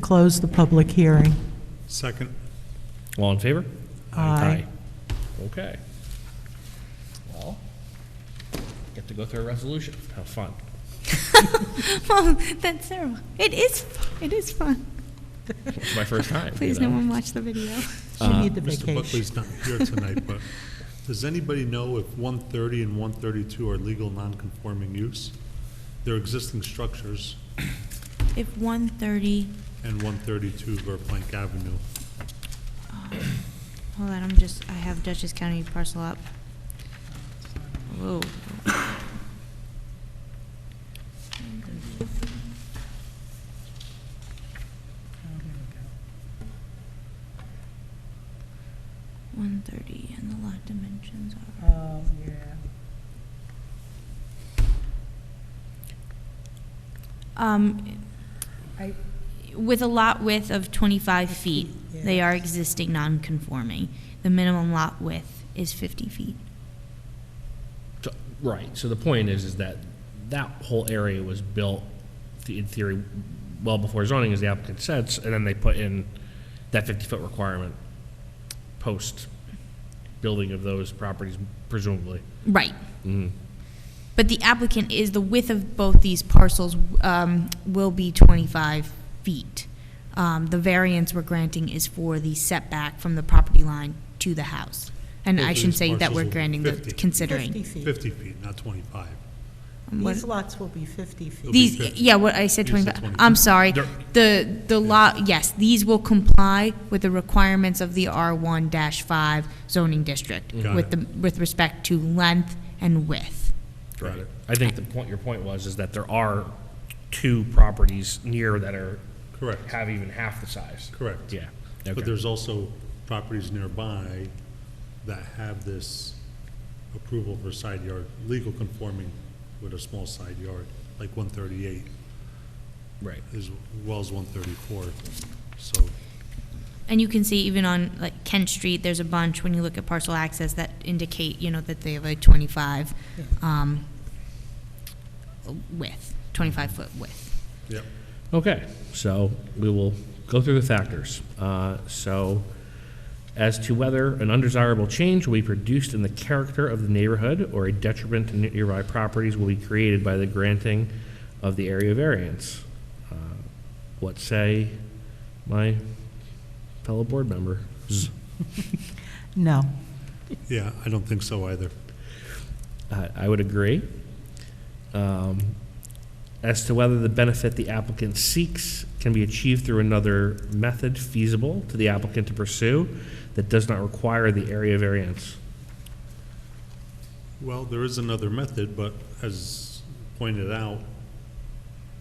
Close the public hearing. Second. All in favor? Aye. Okay. Well, get to go through a resolution. Have fun. Well, that's terrible. It is. fu- It is fun. It's my first time. you Please, know? no one watch the video. Uh, She need the Mr. vacation. Buckley's not here tonight, but does anybody know if 130 and 132 are legal non-conforming use? They're existing structures, If 1:30, and 132 Verplank Avenue. hold on. I'm just. I have Dutchess County parcel up. Whoa. One thirty and the lot dimensions are. Oh, yeah. Um, I, With a lot width of 25 feet, they are existing non-conforming. The minimum lot width is 50 feet. So- Right, so the point is, is that that whole area was built, the- in theory, well before zoning, as the applicant says, and then they put in that 50-foot requirement post-building of those properties presumably. Right. Mm-hmm. But the applicant is, the width of both these parcels um, will be 25 feet. Um, The variance we're granting is for the setback from the property line to the house. And Both I of shouldn't these say that parcels we're will be granting, the 50. Fifty considering. feet. 50 feet, not 25. What- These lots will be 50 feet. It'll be These, 50. yeah, what I said You said 25, 25. I'm sorry. They're- The, the law, yes, these will comply with the requirements of the R1-5 zoning district Mm-hmm. Got with the, with respect to length and width. Got it. I think the point, your point was, is that there are two properties near that are. Correct. Have even half the size. Correct. Yeah. But there's also properties nearby that have this approval for side yard, legal conforming with a small side yard, like 138, Right. as well as 134. So And you can see even on like Kent Street, there's a bunch, when you look at parcel access, that indicate, you know, that they have a 25 um, width, 25-foot width. Yep. Okay, so we will go through the factors. Uh, So, as to whether an undesirable change will be produced in the character of the neighborhood or a detriment to nearby properties will be created by the granting of the area variance. Uh, What say my fellow board member? Z- No. Yeah, I don't think so either. I I would agree. Um, As to whether the benefit the applicant seeks can be achieved through another method feasible to the applicant to pursue that does not require the area variance. Well, there is another method, but as pointed out,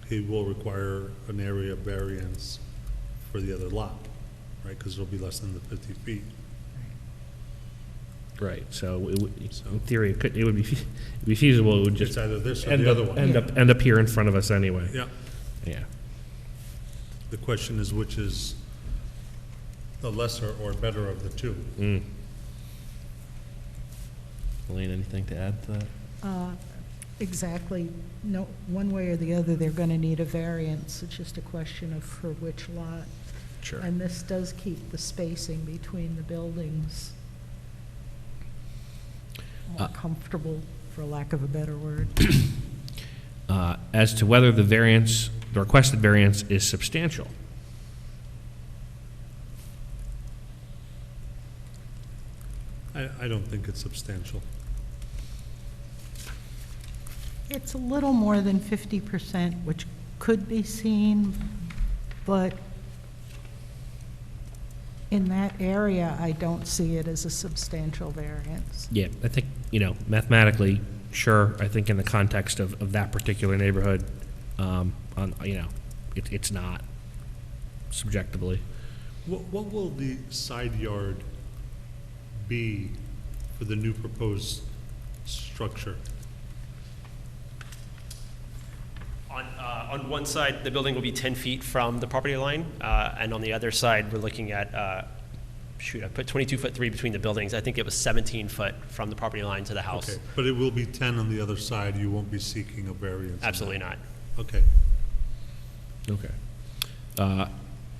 it will require an area variance for the other lot, right? Because it'll be less than the 50 feet. Right. So it would- in So- theory, it could, it would be fe- it'd be feasible, it would It's just either this or end the other up, one. end up, end up here in front of us anyway. Yeah. Yeah. The question is which is the lesser or better of the two. Hmm. Elaine, anything to add to that? uh, exactly, no, one way or the other, they're going to need a variance, it's just a question of for which lot. Sure. And this does keep the spacing between the buildings more Uh, comfortable, for lack of a better word. Uh, As to whether the variance, the requested variance is substantial. I, I don't think it's substantial. It's a little more than 50%, which could be seen, but In that area, I don't see it as a substantial variance. Yeah, I think, you know, mathematically, sure, I think in the context of, of that particular neighborhood, um, on, you know, it, it's not subjectively. What, what will the side yard be for the new proposed structure? On, uh, on one side, the building will be 10 feet from the property line, uh, and on the other side, we're looking at, uh, shoot, I put 22 foot 3 between the buildings. I think it was 17 foot from the property line to the house. Okay, But it will be 10 on the other side, you won't be seeking a variance? on that? Absolutely not. Okay. Okay. Uh,